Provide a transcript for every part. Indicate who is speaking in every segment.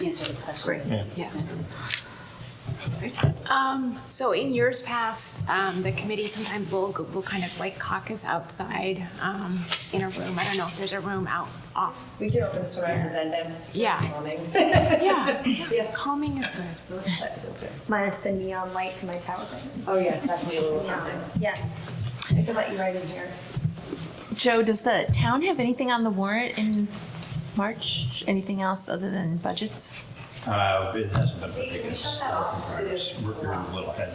Speaker 1: answer the question.
Speaker 2: Great.
Speaker 3: Yeah.
Speaker 2: Yeah.
Speaker 4: Um, so in years past, um, the committee sometimes will, go- will kind of like caucus outside, um, in a room. I don't know if there's a room out off.
Speaker 5: We can open this door and send them.
Speaker 4: Yeah. Yeah, yeah, calming is good.
Speaker 6: Minus the neon light from my tower.
Speaker 5: Oh, yes, that can be a little
Speaker 6: Yeah.
Speaker 5: tempting.
Speaker 6: Yeah. I can let you right in here.
Speaker 7: Joe, does the town have anything on the warrant in March? Anything else other than budgets?
Speaker 3: Uh, it hasn't been the biggest work in progress. We're we're a little ahead.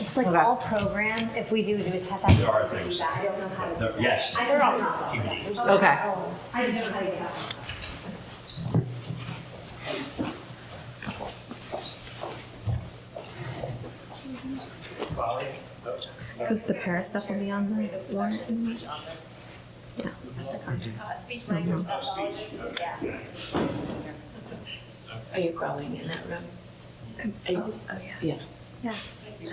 Speaker 6: It's like all programs. If we do, we just have that.
Speaker 3: There are things.
Speaker 6: I don't know how to.
Speaker 3: There- Yes.
Speaker 6: I don't know how to.
Speaker 2: Okay.
Speaker 6: oh, I just don't know how to get up.
Speaker 7: Because the para stuff will be on the warrant.
Speaker 5: Are you growing in that room?
Speaker 6: Oh, Yeah.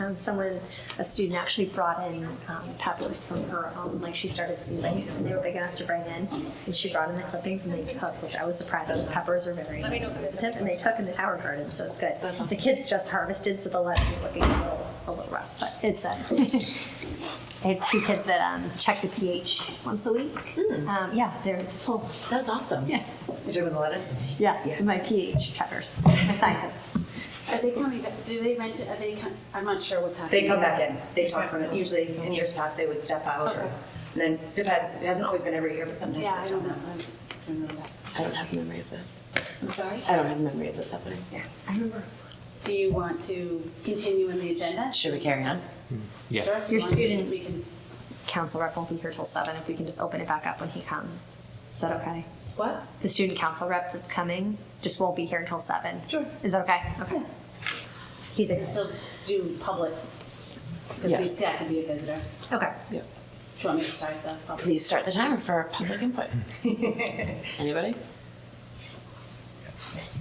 Speaker 6: Um, someone, a student actually brought in um, peppers from her own, like she started seedlings and they were big enough to bring in. And she brought in the clippings and they took, which I was surprised, those peppers are very sensitive, and they took in the tower garden, so it's good. The kids just harvested, so the lettuce is looking a little, a little rough, but it's, uh, I have two kids that um, check the pH once a week. Um, yeah, there it's full,
Speaker 1: That's awesome.
Speaker 6: yeah,
Speaker 5: You're doing the lettuce?
Speaker 6: yeah, my pH checkers, my scientists.
Speaker 1: Are they coming, back- do they mention, are they, com- I'm not sure what's happening.
Speaker 5: They come back in, they talk from it, usually in years past, they would step out or,
Speaker 1: Okay.
Speaker 5: and then depends, it hasn't always been every year, but sometimes.
Speaker 1: Yeah, I
Speaker 5: they
Speaker 1: don't
Speaker 5: do.
Speaker 1: know. I don't know. that.
Speaker 8: I don't have memory of this.
Speaker 1: I'm sorry?
Speaker 8: I don't have memory of this happening.
Speaker 1: Do you want to continue in the agenda?
Speaker 8: Should we carry on?
Speaker 1: Sure, if you
Speaker 6: Your
Speaker 1: want to,
Speaker 6: student-
Speaker 1: We can,
Speaker 6: council rep won't be here till seven, if we can just open it back up when he comes. Is that okay?
Speaker 1: what?
Speaker 6: The student council rep that's coming just won't be here until seven. Sure. Is that okay? Okay. He's, ex-
Speaker 1: Still do public,
Speaker 8: Yeah.
Speaker 1: because that could be a visitor.
Speaker 6: okay.
Speaker 1: Do you want me to start the public?
Speaker 8: Please start the timer for public input. Anybody?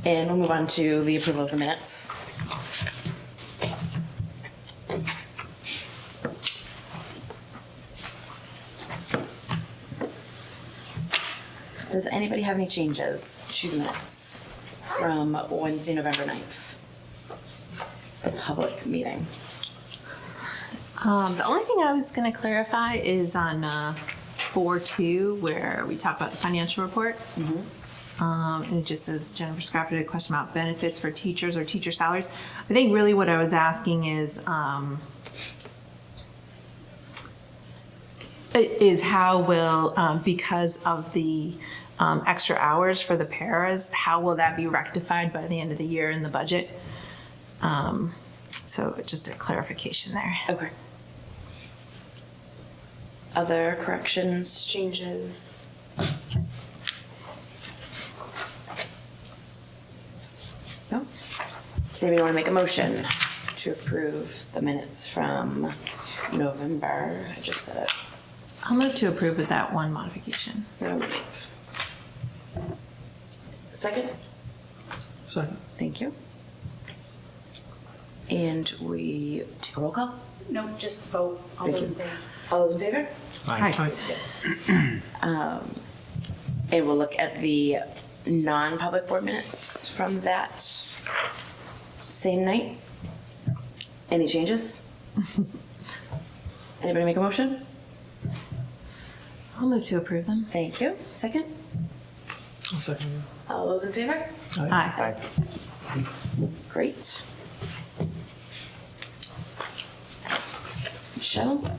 Speaker 8: And we'll move on to the approval of the minutes. Does anybody have any changes to the minutes from Wednesday, November 9th? Public meeting.
Speaker 7: Um, the only thing I was going to clarify is on uh, 4 2, where we talk about the financial report. Um, and it just says Jennifer Scott did a question about benefits for teachers or teacher salaries. I think really what I was asking is um, i- is how will, um, because of the um, extra hours for the paras, how will that be rectified by the end of the year in the budget? Um, so just a clarification there.
Speaker 8: Okay. Other corrections, changes? No? Does anybody want to make a motion to approve the minutes from November? I just said it.
Speaker 7: I'll move to approve with that one modification.
Speaker 8: November 9th. Second?
Speaker 3: Second.
Speaker 8: Thank you. And we take a roll call.
Speaker 1: No, just vote. All
Speaker 8: Thank
Speaker 1: those
Speaker 8: you.
Speaker 1: in favor?
Speaker 8: All those in favor?
Speaker 7: Hi.
Speaker 8: And we'll look at the non-public board minutes from that same night. Any changes? Anybody make a motion?
Speaker 7: I'll move to approve them.
Speaker 8: Thank you. Second?
Speaker 3: Second.
Speaker 8: All those in favor?
Speaker 7: Aye.
Speaker 8: Great. Michelle?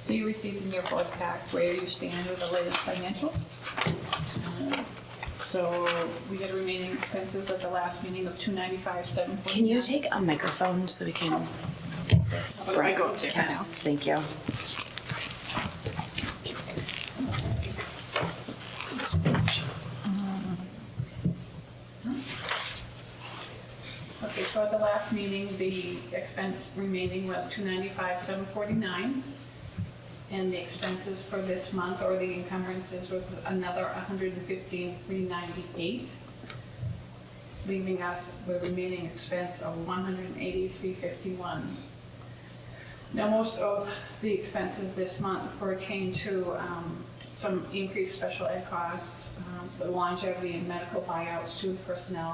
Speaker 9: So you received in your board pack where you stand with the latest financials. Um, So we had remaining expenses at the last meeting of two ninety-five, seven forty-nine.
Speaker 8: Can you take a microphone so we can get this
Speaker 9: Oh, I go up there now.
Speaker 8: broadcast? Thank you.
Speaker 9: Okay, so at the last meeting, the expense remaining was two ninety-five, seven forty-nine. And the expenses for this month, or the encumbrances, was another hundred and fifteen, three ninety-eight, leaving us with remaining expense of one hundred and eighty, three fifty-one. Now, most of the expenses this month pertain to um, some increased special ed costs, um, the longevity and medical buyouts, student personnel,